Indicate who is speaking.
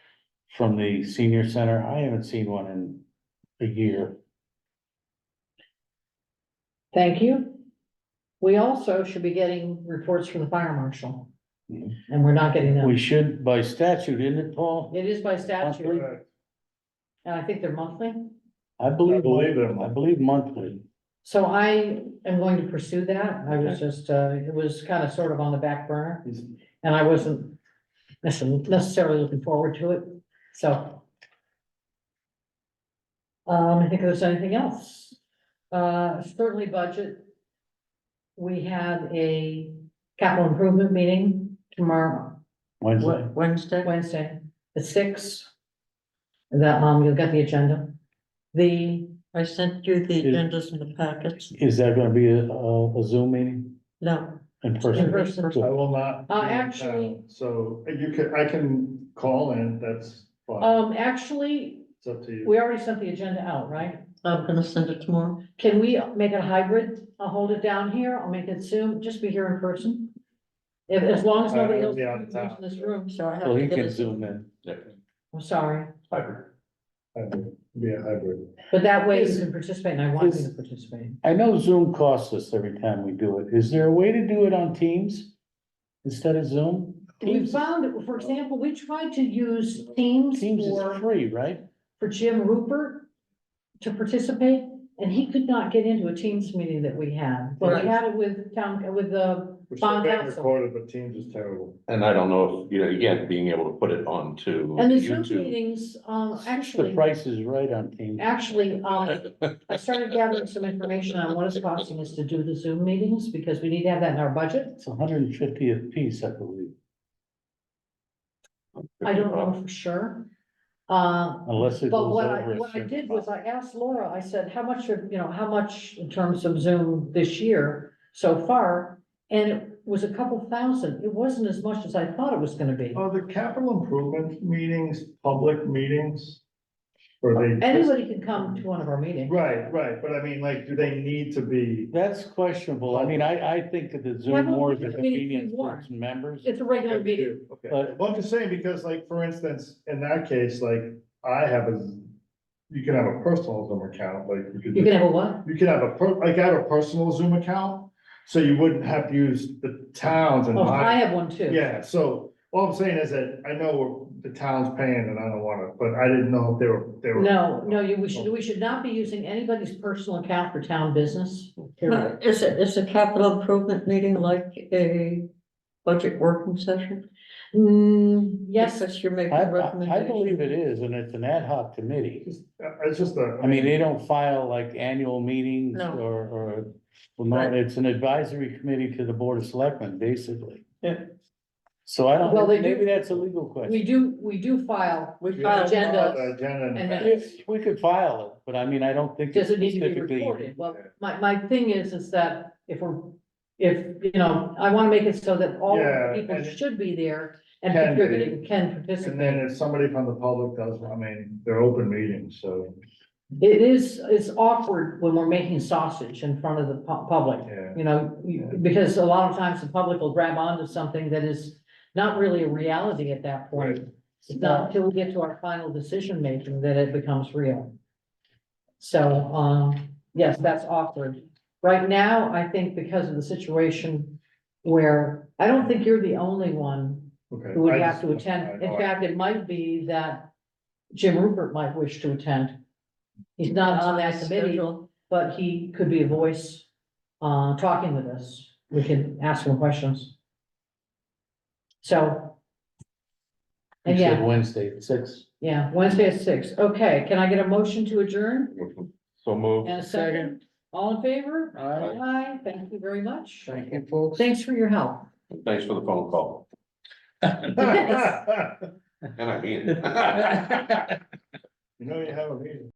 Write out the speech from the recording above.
Speaker 1: from the senior center. I haven't seen one in a year.
Speaker 2: Thank you. We also should be getting reports from the fire marshal.
Speaker 1: Mhm.
Speaker 2: And we're not getting
Speaker 1: We
Speaker 2: them.
Speaker 1: should by statute, isn't it, Paul?
Speaker 2: It is by
Speaker 1: Monthly?
Speaker 2: statute, and I think they're monthly.
Speaker 1: I believe,
Speaker 3: believe they're
Speaker 1: I believe monthly.
Speaker 2: So I am going to pursue that. I was just, uh, it was kind of sort of on the back burner. And I wasn't necess- necessarily looking forward to it, so. Um, I think there's anything else. Uh, certainly budget. We have a capital improvement meeting tomorrow,
Speaker 1: Wednesday,
Speaker 4: Wednesday?
Speaker 2: Wednesday, at six. That, um, you'll get the agenda. The,
Speaker 4: I sent you the agendas in the packets.
Speaker 1: is that gonna be a, a Zoom meeting
Speaker 4: No,
Speaker 1: in
Speaker 2: In
Speaker 1: person?
Speaker 2: person.
Speaker 3: I will not. be
Speaker 2: Uh,
Speaker 3: in
Speaker 2: actually-
Speaker 3: town, So you could, I can call in, that's fine,
Speaker 2: um, actually,
Speaker 3: it's up to you.
Speaker 2: we already sent the agenda out, right?
Speaker 4: I'm gonna send it tomorrow.
Speaker 2: Can we make it hybrid? I'll hold it down here, I'll make it Zoom, just be here in person. If, as long as nobody
Speaker 3: Uh,
Speaker 2: else
Speaker 3: yeah, I'm
Speaker 2: is in this room, so I have,
Speaker 1: Well,
Speaker 2: to
Speaker 1: he
Speaker 2: get
Speaker 1: can
Speaker 2: it.
Speaker 1: zoom in.
Speaker 2: I'm sorry,
Speaker 3: Hybrid. Hybrid, Be a hybrid.
Speaker 2: but that way you
Speaker 1: Is-
Speaker 2: can participate and I want you
Speaker 1: is-
Speaker 2: to participate.
Speaker 1: I know Zoom costs us every time we do it. Is there a way to do it on Teams instead of Zoom?
Speaker 2: We
Speaker 1: Teams,
Speaker 2: found, for example, we tried to use Teams
Speaker 1: Teams is
Speaker 2: for,
Speaker 1: free, right?
Speaker 2: for Jim Rupert to participate, and he could not get into a Teams meeting that we had. But
Speaker 4: Right.
Speaker 2: we had it with town, with the,
Speaker 3: We're still
Speaker 2: Bond
Speaker 3: getting
Speaker 2: council.
Speaker 3: recorded, but Teams is terrible.
Speaker 5: And I don't know if, you know, again, being able to put it on to
Speaker 2: and the Zoom
Speaker 5: YouTube.
Speaker 2: meetings, um,
Speaker 1: The
Speaker 2: actually,
Speaker 1: price is right on Teams.
Speaker 2: actually, um, I started gathering some information on what it's costing us to do the Zoom meetings, because we need to have that in our budget.
Speaker 1: It's a hundred and fiftieth piece, I believe,
Speaker 2: I don't know for sure. Uh,
Speaker 1: unless it
Speaker 2: but
Speaker 1: goes
Speaker 2: what I,
Speaker 1: over. a
Speaker 2: what I
Speaker 1: certain
Speaker 2: did was
Speaker 1: amount.
Speaker 2: I asked Laura, I said, how much, of- you know, how much in terms of Zoom this year so far? And it was a couple thousand. It wasn't as much as I thought it was gonna be.
Speaker 3: Are the capital improvement meetings, public meetings? Or they?
Speaker 2: Anybody can come to one of our meetings.
Speaker 3: Right, right, but I mean, like, do they need to be?
Speaker 1: That's questionable. I mean, I, I think that the
Speaker 2: Why
Speaker 1: Zoom
Speaker 2: don't
Speaker 1: more is
Speaker 2: we
Speaker 1: a
Speaker 2: just make it
Speaker 1: convenience for
Speaker 2: more?
Speaker 1: its members.
Speaker 2: It's a regular meeting.
Speaker 3: Okay,
Speaker 1: But-
Speaker 3: well, I'm just saying, because like, for instance, in that case, like, I have a, you can have a personal Zoom account, like. could
Speaker 2: You can have a what?
Speaker 3: You could have a, per- like I have a personal Zoom account, so you wouldn't have to use the towns and
Speaker 2: Oh, I
Speaker 3: my,
Speaker 2: have one too.
Speaker 3: yeah, so. All I'm saying is that I know we're- the town's paying and I don't wanna, but I didn't know if they were, they were.
Speaker 2: No, no, you, we should, we should not be using anybody's personal account for town business. period.
Speaker 4: But Is it, is a capital improvement meeting like a budget working session?
Speaker 2: Mm, yes,
Speaker 4: Because you're
Speaker 1: I,
Speaker 4: making
Speaker 1: I I
Speaker 4: recommendations.
Speaker 1: believe it is, and it's an ad hoc committee.
Speaker 3: Uh, It's just a.
Speaker 1: I mean, they don't file like annual meetings
Speaker 4: No.
Speaker 1: or, or, well, no,
Speaker 4: Right.
Speaker 1: it's an advisory committee to the Board of Selectmen, basically.
Speaker 4: Yeah.
Speaker 1: So I don't,
Speaker 2: Well, they do-
Speaker 1: maybe that's a legal
Speaker 2: we
Speaker 1: question.
Speaker 2: do, we do file,
Speaker 4: We
Speaker 3: you
Speaker 4: filed,
Speaker 3: have to follow
Speaker 2: agendas
Speaker 3: the Agenda. and-
Speaker 2: and then-
Speaker 1: If- We could file it, but I mean, I don't think.
Speaker 2: does
Speaker 1: it's
Speaker 2: it need to be
Speaker 1: specifically-
Speaker 2: recorded? Well, my, my thing is, is that if we're, if, you know, I wanna make it so that all
Speaker 3: Yeah,
Speaker 2: people
Speaker 3: and-
Speaker 2: should be there and
Speaker 3: Can be.
Speaker 2: contributing, can
Speaker 3: And then
Speaker 2: participate.
Speaker 3: if somebody from the public does, I mean, they're open meetings, so,
Speaker 2: It is, it's awkward when we're making sausage in front of the pu- public.
Speaker 3: yeah.
Speaker 2: You know, you- because a lot of times the public will grab onto something that is not really a reality at that point. It's not until we get to our final decision making that it becomes real. So, um, yes, that's awkward. Right now, I think because of the situation where I don't think you're the only one
Speaker 3: Okay.
Speaker 2: who would
Speaker 3: I
Speaker 2: have to
Speaker 3: just-
Speaker 2: attend. In
Speaker 3: I-
Speaker 2: fact, it might be that Jim Rupert might wish to attend. He's not on that committee
Speaker 4: schedule.
Speaker 2: but he could be a voice, uh, talking with us. We can ask him questions. So.
Speaker 1: You said
Speaker 2: Again,
Speaker 1: Wednesday at six.
Speaker 2: yeah, Wednesday at six. Okay, can I get a motion to adjourn?
Speaker 5: So move.
Speaker 2: And a second, all in favor?
Speaker 1: Aye.
Speaker 2: Aye, thank you very much.
Speaker 1: Thank you, folks.
Speaker 2: Thanks for your help.
Speaker 5: Thanks for the phone call. And I mean it.
Speaker 3: You know, you have a meeting.